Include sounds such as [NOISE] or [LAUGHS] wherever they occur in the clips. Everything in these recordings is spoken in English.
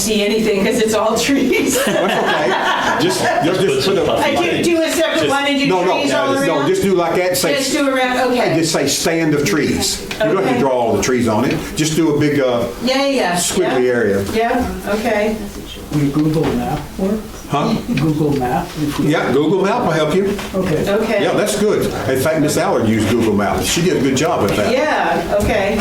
see anything because it's all [LAUGHS] trees. That's okay. Just, just, just put a. I do, do a separate one and do No, no, trees all around? no, just do like that, say. Just do around, okay. Just say stand of trees. You don't have Okay. to draw all the trees on it, just do a big, uh, Yeah, yeah, yeah. squiggly yeah. area. Yeah, okay. Will Google map work? Huh? Google map? if we- Yeah, Google Map will help you. Okay. Okay. Yeah, that's good. In fact, Miss Allard used Google Maps. She did a good job with that. Yeah, okay.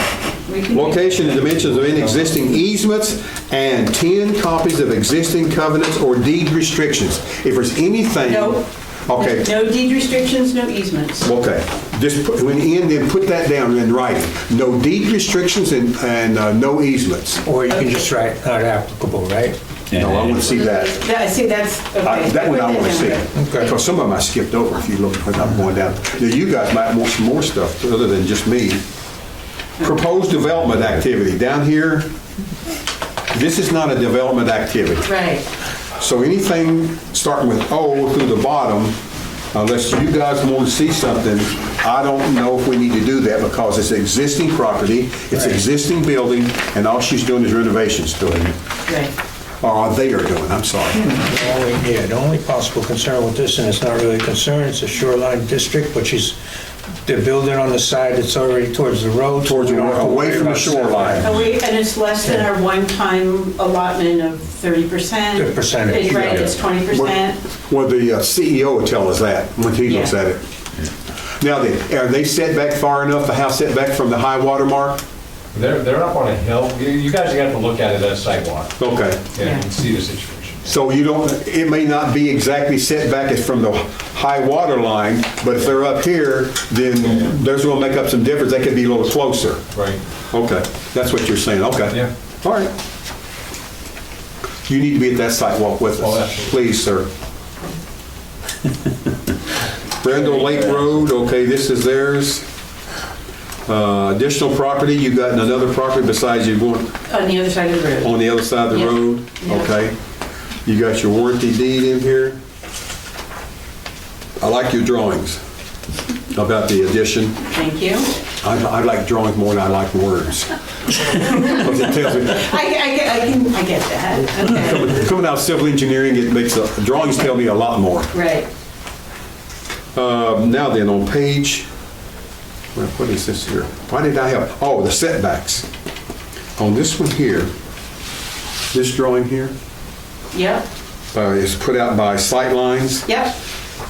We can do Location and dimensions of any existing easements and 10 copies of existing covenants or deed restrictions. If there's anything. No. Okay, No deed restrictions, no easements. Okay, just put, when in, then put that down in writing. No deed restrictions and, and uh, no easements. Or you can just write not applicable, right? No, I want to see that. That, see, that's, I- okay. That one I want to see. Okay. Because some of them I skipped over if you look, when I'm going down. Now, you guys might want some more stuff other than just me. Proposed development activity, down here, this is not a development activity. Right, So anything starting with O through the bottom, unless you guys want to see something, I don't know if we need to do that because it's existing property, it's existing building, and all she's doing is renovations to it. right. Or they are doing, I'm sorry. The only- Yeah, the only possible concern with this, and it's not really a concern, it's a shoreline district, but she's, they're building on the side that's already towards the road. so Towards we the don't road, have to away worry from the about shoreline. And we, and it's less than our one-time allotment of 30%. The percentage, It's Right, yeah. it's 20%. Well, the uh, CEO will tell us that when he looks Yeah. at it. Now then, are they set back far enough, the house set back from the high water mark? They're, they're up on a hill. You- You guys are gonna have to look at it at sidewalk Okay. Yeah. and see the situation. So you don't, it may not be exactly set back as from the high water line, but if they're up here, then there's gonna make up some difference, they could be a little closer. Right. Okay, that's what you're saying, okay. Yeah. All right. You need to be at that sidewalk with Oh, us, absolutely. please, sir. Brendel Lake Road, okay, this is theirs. Uh, Additional property, you've got another property besides you going, On the other side of the road. on the other side of the Yeah. road, Yeah. okay? You got your warranty deed in here. I like your drawings about the addition. Thank you. I, I like drawings more than I [LAUGHS] like words. 'Cause it tells me- I, I get, I can, I get that, okay, Coming out of civil engineering, it makes, a- drawings tell me a lot more. right. Uh, Now then, on page, what what is this here? Why did I have, oh, the setbacks. On this one here, this drawing here Yep, uh, is put out by Sightlines. yep,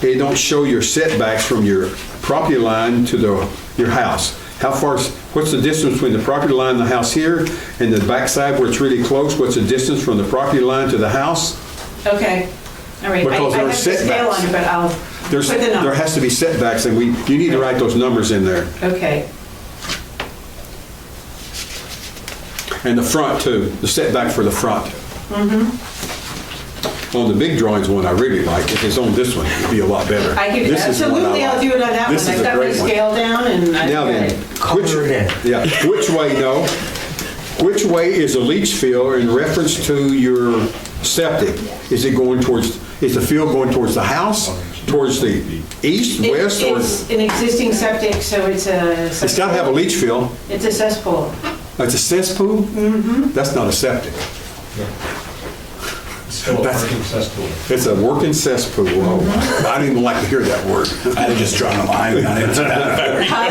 they don't show your setbacks from your property line to the, your house. How far, is- what's the distance between the property line and the house here, and the backside where it's really close, what's the distance from the property line to the house? okay. All right, I Because I there are have to scale setbacks. on it, but I'll put There's, the there number. has to be setbacks, and we, you need to write those numbers in there, Okay, and the front too, the setback for the front. Mm-hmm. On the big drawings one, I really like, if it's on this one, it'd be a lot better. I could, This is the one I absolutely, I'll like. do it on that one. This is I've a got my great one. scale down and I've Now got then, it. which, Color it yeah, which way, no? Which way is the leach field in reference to your septic? Is it going towards, is the field going towards the house, towards the east, It- west, or? It's an existing septic, so it's a. It's gotta have a leach field. It's a [LAUGHS] cesspool. It's a cesspool? Mm-hmm. That's not a septic. It's still a That's- parking cesspool. It's a working cesspool. Mm-hmm. Oh, I didn't even like to hear that word. I'd have just drawn a line on it. I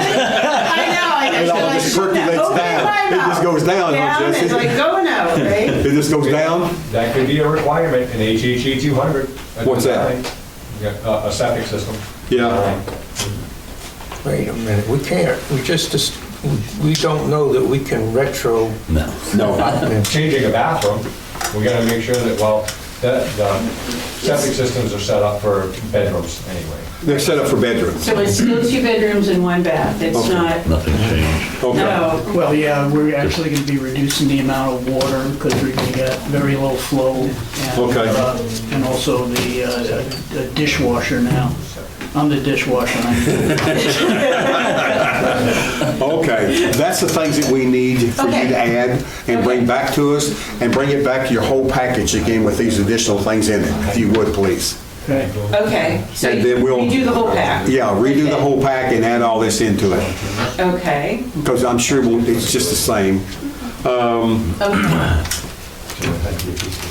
know, I It all just percolates down. It just goes down, huh, Down, it's Jesse? [LAUGHS] like going out, right? [LAUGHS] It just goes down? That could be a E requirement in HHE 200. a What's that? design. Yeah, A a septic system. Yeah. Wait a minute, we can't, we just, just- we don't know that we can retro. No. No. Changing a bathroom, we gotta make sure that, well, that, the septic systems are set up for bedrooms anyway. They're set up for bedrooms. So it's still two bedrooms and one bath. It's Okay. not, Nothing changed. Okay. no. Well, yeah, we're actually going to be reducing the amount of water because we're going to get very low flow. and, Okay. uh, And also the uh, the dishwasher now. I'm the dishwasher. [LAUGHS] I'm- Okay, that's the things that we need for you Okay. to add and bring back to us, and bring it back to your whole package again with these additional things in it, if you would, please. Okay. Okay, so And then we'll- we do the whole pack? Yeah, redo the Okay. whole pack and add all this into it, Okay, because I'm sure it won't- it's just the same. okay. Sure, thank you.